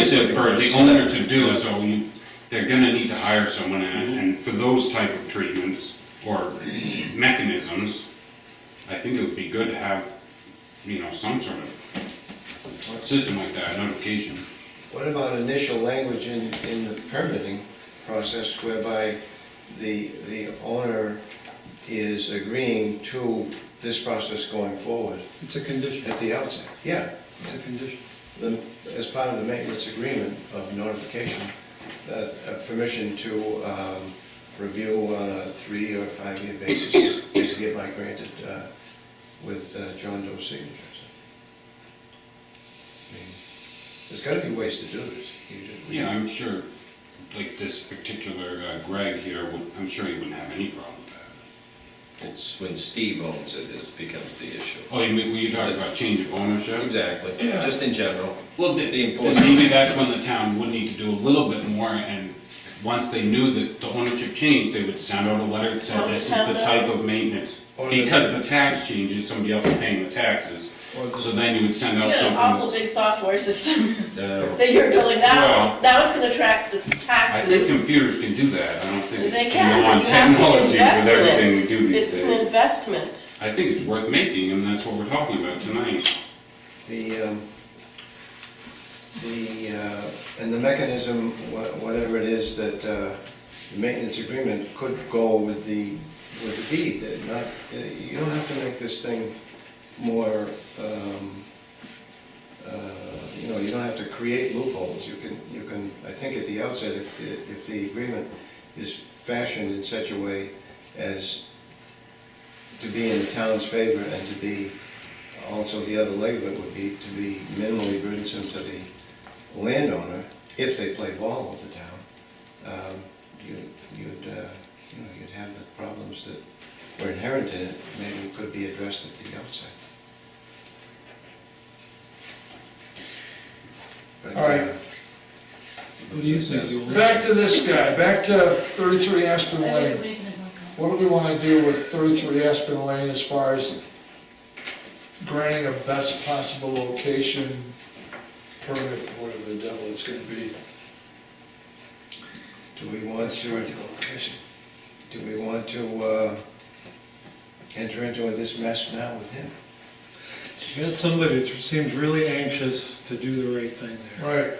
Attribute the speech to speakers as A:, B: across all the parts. A: expensive for the
B: Yeah.
A: owner to do, so you- they're gonna need to hire someone, and and for those type of treatments or mechanisms, I think it would be good to have, you know, some sort of system like that, notification.
C: What about initial language in, in the permitting process whereby the, the owner is agreeing to this process going forward
D: It's a condition,
C: at the outset? Yeah,
D: it's a condition.
C: the- as part of the maintenance agreement of notification, that, uh, permission to um, review on a three or five-year basis is- is hereby granted uh, with uh, John Doe signatures. I mean, There's gotta be ways to do this. You just-
A: Yeah, I'm sure, like this particular uh, Greg here, would- I'm sure he wouldn't have any problem with that.
B: It's when Steve owns it, this becomes the issue.
A: Oh, you mean, were you talking about change of ownership?
B: Exactly,
A: Yeah.
B: just in general.
A: Well, th-
B: The
A: th-
B: enforcement.
A: maybe that's when the town would need to do a little bit more, and once they knew that the ownership changed, they would send out a letter that said, this is the type of maintenance.
C: Or the-
A: Because the tax changes, somebody else is paying the taxes,
C: Or the-
A: so then you would send
E: You
A: out
E: got an awful
A: something.
E: big software system
B: No,
E: that you're building
A: Well-
E: now, now it's gonna track the
A: I think
E: taxes.
A: computers can do that, I don't think
E: They
A: it's can
E: can,
A: go on
E: but you have to
A: technology with
E: invest in
A: everything we
E: it.
A: do these
E: It's an
A: days.
E: investment.
A: I think it's worth making, and that's what we're talking about tonight.
C: The, um, the, uh, and the mechanism, wha- whatever it is that uh, the maintenance agreement could go with the, with the deed, that not, uh, you don't have to make this thing more, um, uh, you know, you don't have to create loopholes, you can, you can, I think at the outset, if, the- if the agreement is fashioned in such a way as to be in the town's favor and to be also, the other leg of it would be to be minimally burdensome to the landowner if they play ball with the town. Um, You'd, you'd, uh, you know, you'd have the problems that were inherent in it, maybe could be addressed at the outset. But,
F: All right.
C: uh,
D: What do you think, Yul?
F: Back to this guy, back to 33 Aspen Lane. What do we want to do with 33 Aspen Lane as far as granting a best possible location permit, whatever the devil it's going to be?
C: Do we want to, do we want to uh, enter into this mess now with him?
D: You got somebody that seems really anxious to do the right thing there,
F: Right.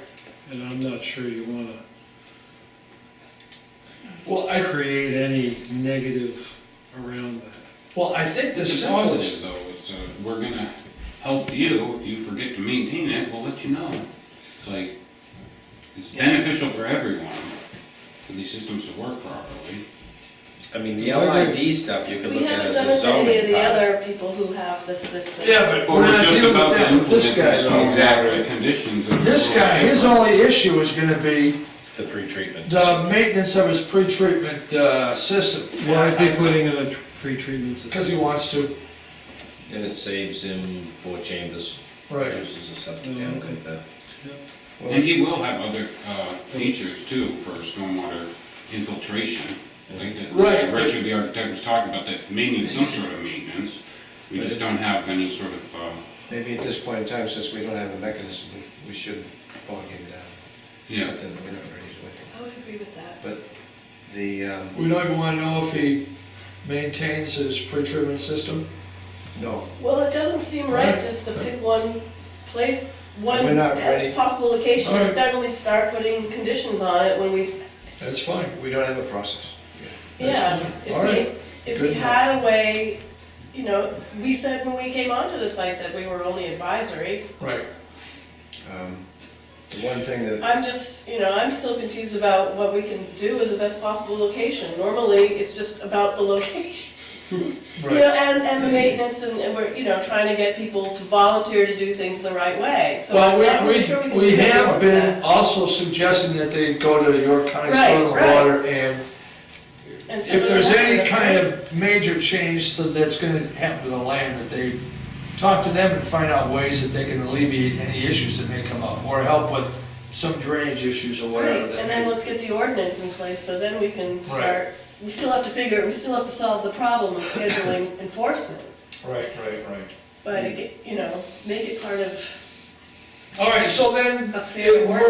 D: and I'm not sure you wanna
F: Well, I,
D: create any negative around that.
F: well, I think the
A: It's a
F: simplest,
A: positive, though, it's a, we're gonna help you, if you forget to maintain it, we'll let you know. It's like, it's beneficial for everyone, for these systems to work properly.
B: I mean, the LID stuff you can
E: We
B: look at
E: haven't
B: as
E: done
B: a
E: it to
B: zoning.
E: any of the
B: bylaw.
E: other people who have this system.
F: yeah, but
A: But
F: we're
A: we're
F: not
A: just
F: dealing
A: about
F: with
A: to
F: that with this
A: implement
F: guy.
A: the
F: though.
A: exact conditions of.
F: This guy, his only issue is going to be
B: The pre-treatment.
F: the maintenance of his pre-treatment uh, system.
D: Why is he putting in a tr- pretreatment
F: Because he
D: system?
F: wants to.
B: And it saves him four chambers, reduces the septic,
D: Mm-hmm.
B: and like that.
C: Well,
A: And he will have other, uh, features too for stormwater infiltration, like that.
F: Right.
A: Richard, the architect was talking about, that may need some sort of maintenance, we just don't have any sort of, uh,
C: Maybe at this point in time, since we don't have a mechanism, we- we should bog him down.
A: yeah.
C: Something that we're not ready to look
E: I would agree with that.
C: at. But the, um,
F: We don't even want to know if he maintains his pre-treatment system.
C: no,
E: Well, it doesn't seem right just to pick one place, one
C: We're not ready.
E: as possible location,
F: All right.
E: and suddenly start putting conditions on it when we,
F: That's fine.
C: we don't have a process.
F: That's
E: yeah.
F: fine.
E: If
F: All right.
E: we, if
F: Good
E: we
F: enough.
E: had a way, you know, we said when we came onto the site that we were only advisory.
F: Right.
C: Um, The one thing that,
E: I'm just, you know, I'm still confused about what we can do as a best possible location. Normally, it's just about the location, you know,
F: Right.
E: and, and the maintenance, and, and we're, you know, trying to get people to volunteer to do things the right way. So
F: Well,
E: I'm not really sure
F: we,
E: can
F: we, we
E: do any more
F: have
E: of
F: been
E: that.
F: also suggesting that they go to the York County
E: Right,
F: Soil and
E: right.
F: Water and
E: And some
F: if
E: of
F: there's
E: that-
F: any kind of major change that- that's gonna happen to the land, that they talk to them and find out ways that they can alleviate any issues that may come up, or help with some drainage issues or
E: Right,
F: whatever. that
E: and
F: may-
E: then let's get the ordinance in place, so then we can start, we still have to figure, we still have to solve the problem of scheduling enforcement.
F: Right, right, right.
E: But, you know, make it part of
F: All right, so then,
E: A fair
F: it- we're-